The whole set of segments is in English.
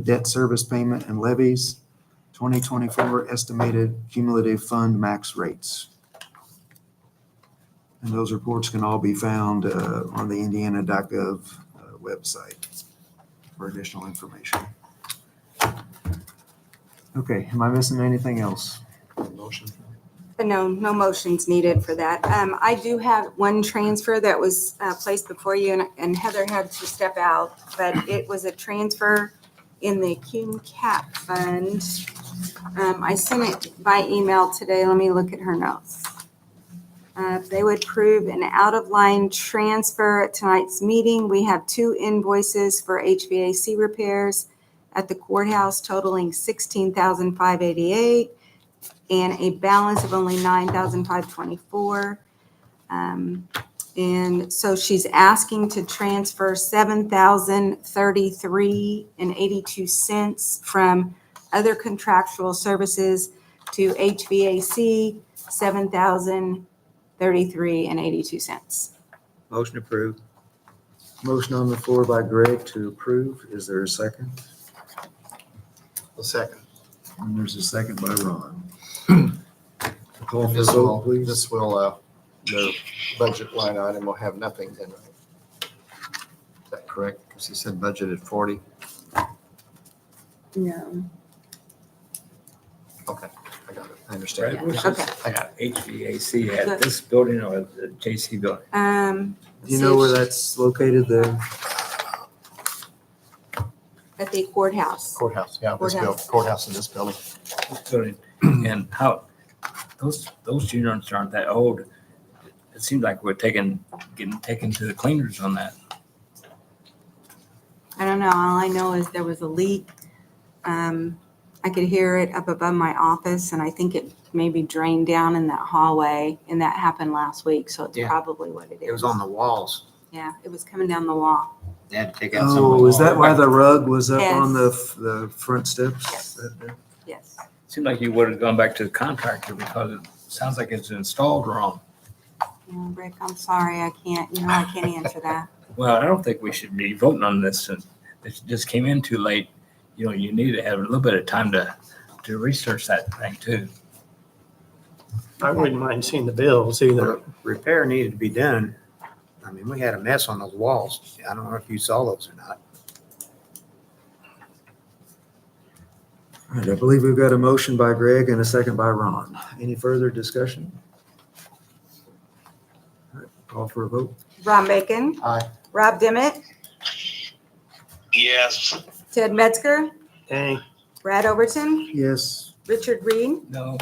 debt service payment and levies, 2024 estimated cumulative fund max rates. And those reports can all be found uh, on the indiana.gov uh, website for additional information. Okay, am I missing anything else? Motion. But Uh, No, no motions needed for that. Um, I do have one transfer that was uh, placed before you and- and Heather had to step out, but it was a transfer in the cum cap fund. Um, I sent it by email today. Let me look at her notes. Uh, if they would approve an out-of-line transfer at tonight's meeting, we have two invoices for HVAC repairs at the courthouse totaling sixteen thousand five eighty-eight and a balance of only nine thousand five twenty-four. Um, and so she's asking to transfer seven thousand thirty-three and eighty-two cents from other contractual services to HVAC, seven thousand thirty-three and eighty-two cents. Motion approved. Motion on the floor by Greg to approve. Is there a second? A second. And there's a second by Ron. Call for This vote, will, please. this will, uh, the budget line item will have nothing in it. Is that correct? Because he said budgeted forty. No. Okay, I got it. I Brad, understand. what's Okay, this HVAC at this building or the JC building? um. Do you know where that's located there? At the courthouse. Courthouse, yeah, this bill, Courthouse. courthouse in this building. This building, and how, those, those units aren't that old. It seems like we're taking, getting taken to the cleaners on that. I don't know. All I know is there was a leak. Um, I could hear it up above my office and I think it maybe drained down in that hallway and that happened last week, so it's Yeah. probably what it is. It was on the walls. Yeah, it was coming down the wall. They had to take out some of the Oh, is that why walls. the rug was up on the, Yes. the front steps? Yes. Yes. Seemed like you would have gone back to the contractor because it sounds like it's installed wrong. Yeah, Rick, I'm sorry. I can't, you know, I can't answer that. Well, I don't think we should be voting on this since this just came in too late. You know, you need to have a little bit of time to, to research that thing too. I wouldn't mind seeing the bills either. Re- Repair needed to be done. I mean, we had a mess on those walls. I don't know if you saw those or not. All right, I believe we've got a motion by Greg and a second by Ron. Any further discussion? All right, Call for a vote. Ron Bacon, Aye. Rob Dimmitt, Yes. Ted Metzger, Dang, Brad Overton, Yes. Richard Reed, No,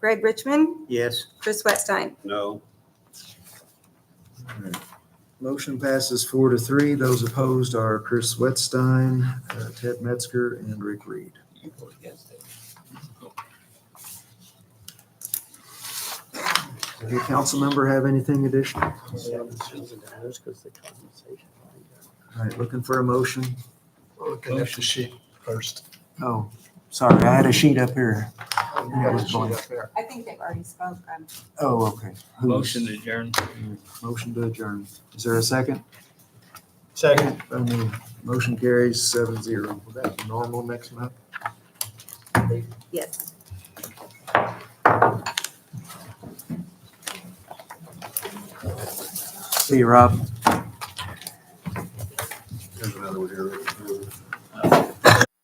Greg Richmond, Yes. Chris Wetstein. No. Motion passes four to three. Those opposed are Chris Wetstein, uh, Ted Metzger, and Rick Reed. you voted against it. Does any council member have anything additional? All right, looking for a motion. Looking at the sheet first. Oh, sorry, I had a sheet up here. You got the sheet up there. I think they've already spoke. um, I'm Oh, okay. Who's- Motion adjourned. Motion to adjourn. Is there a second? second. By me. Motion carries seven zero. Will that be normal next month? Yes. See you, Rob.